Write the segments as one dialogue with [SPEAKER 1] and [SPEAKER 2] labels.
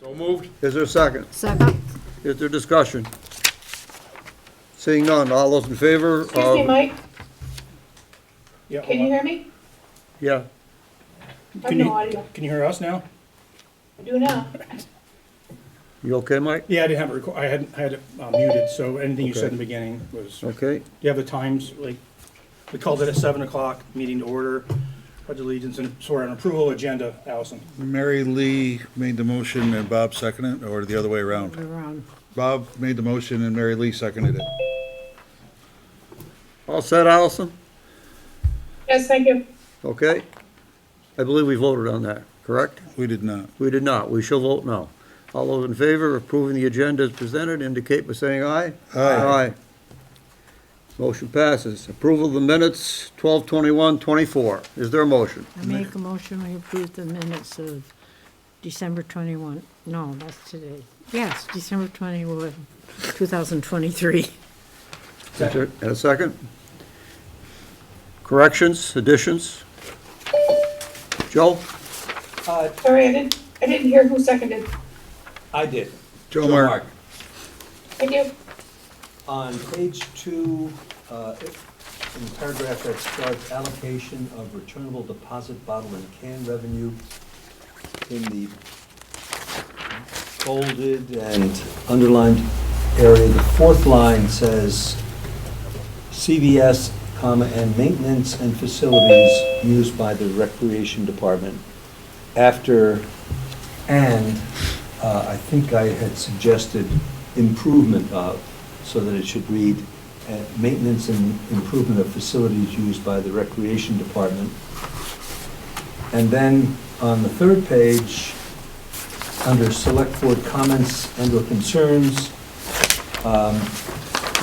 [SPEAKER 1] So moved.
[SPEAKER 2] Is there a second?
[SPEAKER 3] Second?
[SPEAKER 2] Is there discussion? Seeing none, all those in favor?
[SPEAKER 4] Excuse me,
[SPEAKER 2] of-
[SPEAKER 4] Mike,
[SPEAKER 5] Yeah,
[SPEAKER 4] can you
[SPEAKER 5] hold
[SPEAKER 4] hear me?
[SPEAKER 2] Yeah,
[SPEAKER 4] I have
[SPEAKER 5] Can
[SPEAKER 4] no
[SPEAKER 5] you-
[SPEAKER 4] audio.
[SPEAKER 5] on. Can you hear us now?
[SPEAKER 4] Do now.
[SPEAKER 2] you okay, Mike?
[SPEAKER 5] Yeah, I didn't have it record, I hadn't, I had it uh, muted, so anything you said in the beginning was, do
[SPEAKER 2] Okay,
[SPEAKER 5] you have the times, like, we called it at seven o'clock, meeting to order, pledge allegiance and swear an approval agenda, Allison.
[SPEAKER 6] Mary Lee made the motion and Bob seconded it, or the other way around?
[SPEAKER 3] Around.
[SPEAKER 6] Bob made the motion and Mary Lee seconded it.
[SPEAKER 2] all set, Allison?
[SPEAKER 4] Yes, thank you.
[SPEAKER 2] Okay? I believe we voted on that, correct?
[SPEAKER 6] We did not.
[SPEAKER 2] We did not, we shall vote now. All those in favor of approving the agenda as presented indicate by saying aye.
[SPEAKER 6] Aye.
[SPEAKER 2] Motion passes. Approval of the minutes, 12/21/24. Is there a motion?
[SPEAKER 3] I make a motion, we approve the minutes of December 21, no, that's today. Yes, December 21, 2023.
[SPEAKER 2] Is there- And a second? Corrections, additions? Joe?
[SPEAKER 5] Uh,
[SPEAKER 4] Sorry, I didn't, I didn't hear who seconded.
[SPEAKER 7] I did.
[SPEAKER 6] Joe Mark.
[SPEAKER 4] Thank you.
[SPEAKER 7] On page two, uh, in the paragraph that starts allocation of returnable deposit bottle and can revenue in the bolded and underlined area, the fourth line says CVS, comma, and maintenance and facilities used by the recreation department after and uh, I think I had suggested improvement of, so that it should read, uh, maintenance and improvement of facilities used by the recreation department. And then on the third page, under select board comments and/or concerns, um,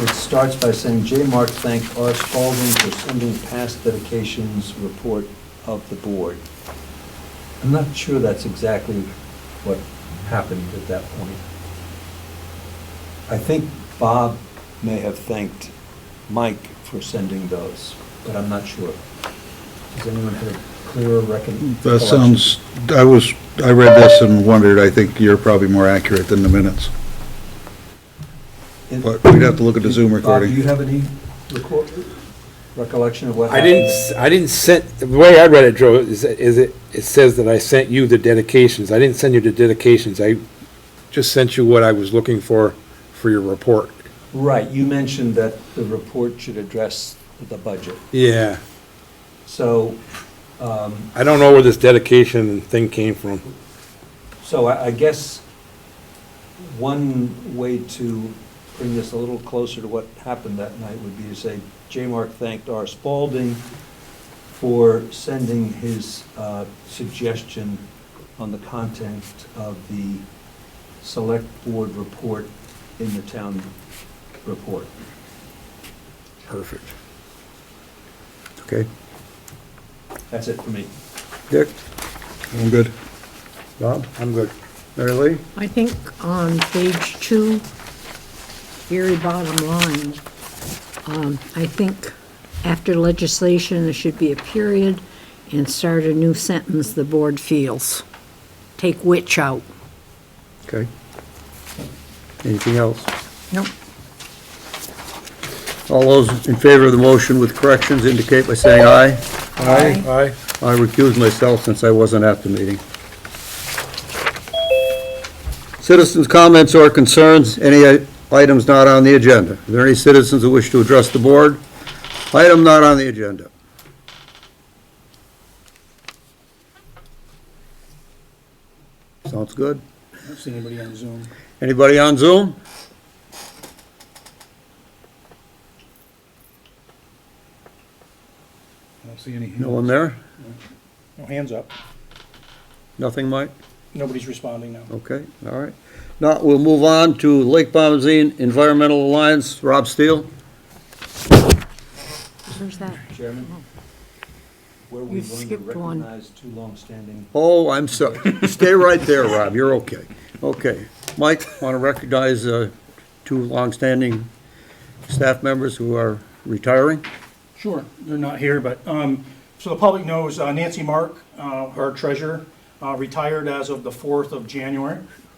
[SPEAKER 7] it starts by saying, J. Mark thanked R. Spalding for sending past dedications report of the board. I'm not sure that's exactly what happened at that point. I think Bob may have thanked Mike for sending those, but I'm not sure. Does anyone have a clearer recollection?
[SPEAKER 6] That sounds, I was, I read this and wondered, I think you're probably more accurate than the minutes.
[SPEAKER 7] It-
[SPEAKER 6] But we'd have to look at the Zoom
[SPEAKER 7] Bob, do
[SPEAKER 6] recording.
[SPEAKER 7] you have any record, recollection of what
[SPEAKER 1] I
[SPEAKER 7] happened?
[SPEAKER 1] didn't, s- I didn't send, the way I read it, Joe, is, is it, it says that I sent you the dedications. I didn't send you the dedications. I just sent you what I was looking for, for your report.
[SPEAKER 7] Right, you mentioned that the report should address the budget.
[SPEAKER 1] Yeah.
[SPEAKER 7] So,
[SPEAKER 1] I don't know where this dedication thing came from.
[SPEAKER 7] So I, I guess one way to bring this a little closer to what happened that night would be to say, J. Mark thanked R. Spalding for sending his uh, suggestion on the content of the select board report in the town report.
[SPEAKER 1] Perfect.
[SPEAKER 2] Okay.
[SPEAKER 7] That's it for me.
[SPEAKER 2] Dick?
[SPEAKER 6] I'm good.
[SPEAKER 2] Bob?
[SPEAKER 1] I'm good.
[SPEAKER 2] Mary Lee?
[SPEAKER 3] I think on page two, very bottom line, um, I think after legislation, there should be a period and start a new sentence, the board feels. Take which out.
[SPEAKER 2] Okay. Anything else?
[SPEAKER 3] Nope.
[SPEAKER 2] All those in favor of the motion with corrections indicate by saying aye.
[SPEAKER 3] Aye.
[SPEAKER 1] Aye.
[SPEAKER 2] I recuse myself since I wasn't at the meeting. Citizens' comments or concerns, any i- items not on the agenda? Are there any citizens who wish to address the board? Item not on the agenda. Sounds good.
[SPEAKER 5] I don't see anybody on Zoom.
[SPEAKER 2] Anybody on Zoom?
[SPEAKER 5] I don't see any.
[SPEAKER 2] No one there?
[SPEAKER 5] No hands up.
[SPEAKER 2] Nothing, Mike?
[SPEAKER 5] Nobody's responding now.
[SPEAKER 2] Okay, all right. Now, we'll move on to Lake Bombazine Environmental Alliance, Rob Steele.
[SPEAKER 3] Where's that?
[SPEAKER 7] Chairman? Were we
[SPEAKER 3] You
[SPEAKER 7] going to
[SPEAKER 3] Hmm. skipped one.
[SPEAKER 7] recognize two longstanding
[SPEAKER 2] Oh, I'm sorry. Stay right there, Rob, you're okay. Okay. Mike, want to recognize uh, two longstanding staff members who are retiring?
[SPEAKER 5] Sure, they're not here, but, um, so the public knows uh, Nancy Mark, uh, our treasurer, uh, retired as of the fourth of January.